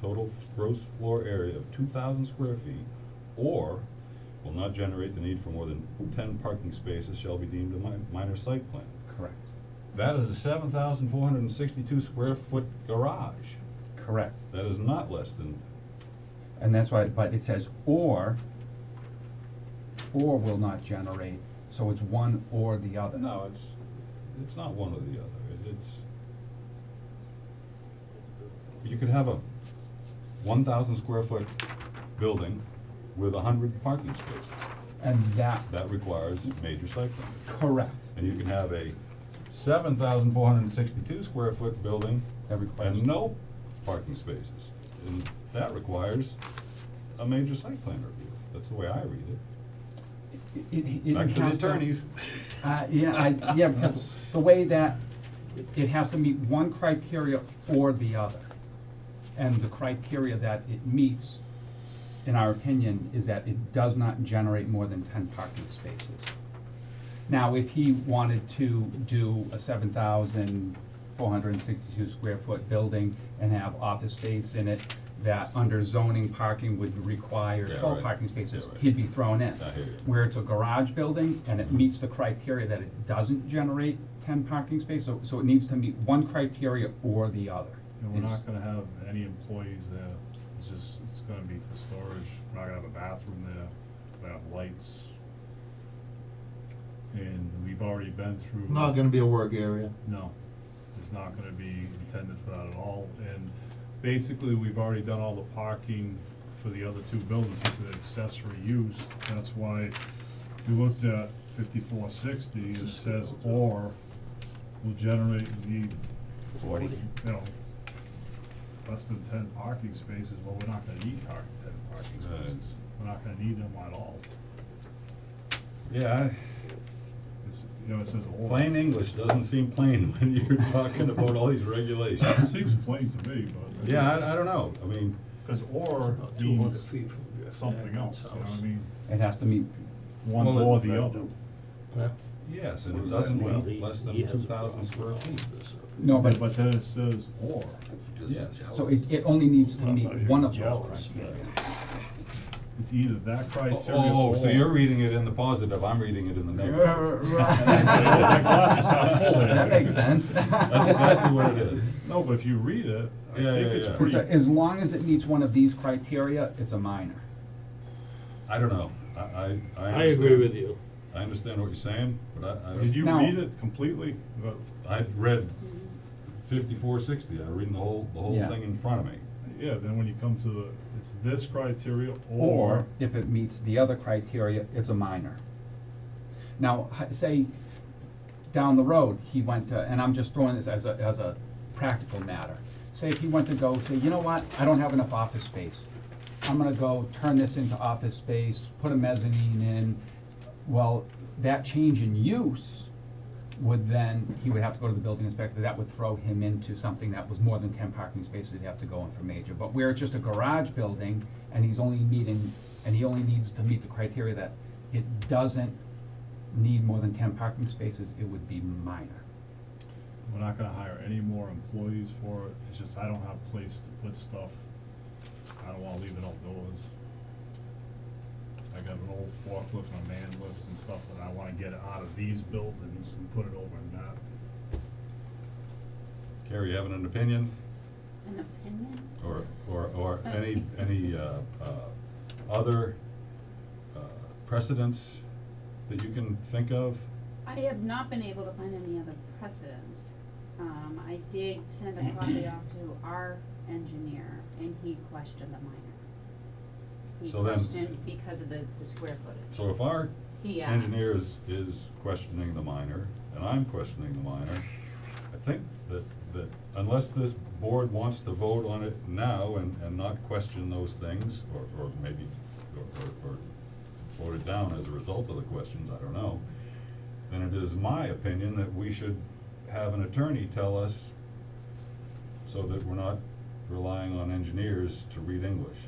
total gross floor area of two thousand square feet, or will not generate the need for more than ten parking spaces shall be deemed a mi- minor site plan. Correct, That is a seven thousand four hundred and sixty-two square foot garage. correct. That is not less than, And that's why, but it says or, or will not generate, so it's one or the other. no, it's, it's not one or the other, It- it's. You could have a one thousand square foot building with a hundred parking spaces. And that, That requires major site plan. correct, And you can have a seven thousand four hundred and sixty-two square foot building that requires, and no parking spaces. And that requires a major site plan review. That's the way I read it. it, it- it Back to the has to- attorneys. Uh, yeah, I, yeah, because the way that, it has to meet one criteria or the other. And the criteria that it meets, in our opinion, is that it does not generate more than ten parking spaces. Now, if he wanted to do a seven thousand four hundred and sixty-two square foot building and have office space in it, that under zoning parking would require Yeah, twelve right. parking spaces, Yeah, right. he'd be thrown in I hear you. where it's a garage building and it meets the criteria that it doesn't generate ten parking spaces, so, so it needs to meet one criteria or the other. And we're not gonna have any employees there, it's just, it's gonna be for storage, we're not gonna have a bathroom there, we're gonna have lights. And we've already been through. Not gonna be a work area. No, it's not gonna be intended for that at all, and basically, we've already done all the parking for the other two buildings, it's an accessory use, that's why we looked at fifty-four sixty, it says or will generate the, Forty. you know, less than ten parking spaces, well, we're not gonna need car, ten parking Right. spaces, we're not gonna need them at all. Yeah, It's, you know, it says I- or. plain English doesn't seem plain when you're talking about all these It regulations. seems plain to me, but. Yeah, I, I don't know. I mean, Cause or About two hundred means feet from Jeff something Hammond's else, you know what I mean? It has to meet, One Well, or if I the other. do. house. yes, and Well, it doesn't he- mean less than he has a two thousand square problem feet. with this, uh, no, Yeah, but, But then it says or, because he's Yes. so jealous. it, it only needs to I'm meet not even one of those jealous, criteria. it's either that criteria Oh, or. so you're reading it in the positive, I'm reading it in the negative. My glass is half full there. That makes sense. That's exactly what it is. No, but if you read it, I Yeah, think yeah, it's yeah. So pretty, As long as it meets one of these criteria, it's a minor. I don't know. I, I, I I agree understand- with you. I understand what you're saying, but I, I don't. did you Now- read it completely? But, I read fifty-four sixty, I read the whole, the whole Yeah. thing in front of me. Yeah, then when you come to the, it's this criteria Or or, if it meets the other criteria, it's a minor. Now, h- say, down the road, he went to, and I'm just throwing this as a, as a practical matter. Say if he went to go, say, you know what, I don't have enough office space. I'm gonna go turn this into office space, put a mezzanine in. Well, that change in use would then, he would have to go to the building inspector, that would throw him into something that was more than ten parking spaces, he'd have to go in for major. But where it's just a garage building, and he's only meeting, and he only needs to meet the criteria that it doesn't need more than ten parking spaces, it would be minor. we're not gonna hire any more employees for it, it's just I don't have place to put stuff. I don't wanna leave it outdoors. I got an old forklift and a man lift and stuff, and I wanna get it out of these buildings and put it over in that. Carrie, you having an opinion, An opinion? or, or, or any, any, uh, uh, other, uh, precedents that you can think of? I have not been able to find any other precedents. Um, I did send a copy off to our engineer and he questioned the minor. He So then- questioned because of the, the square footage. So if our He asked. engineer is, is questioning the minor, and I'm questioning the minor, I think that, that unless this board wants to vote on it now and, and not question those things, or, or maybe, or, or, or vote it down as a result of the questions, I don't know, then it is my opinion that we should have an attorney tell us so that we're not relying on engineers to read English.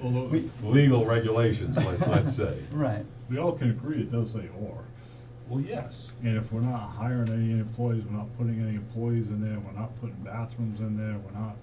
Although, We- Legal regulations, like, let's say. Right. we all can agree it does say or. Well, yes. And if we're not hiring any employees, we're not putting any employees in there, we're not putting bathrooms in there, we're not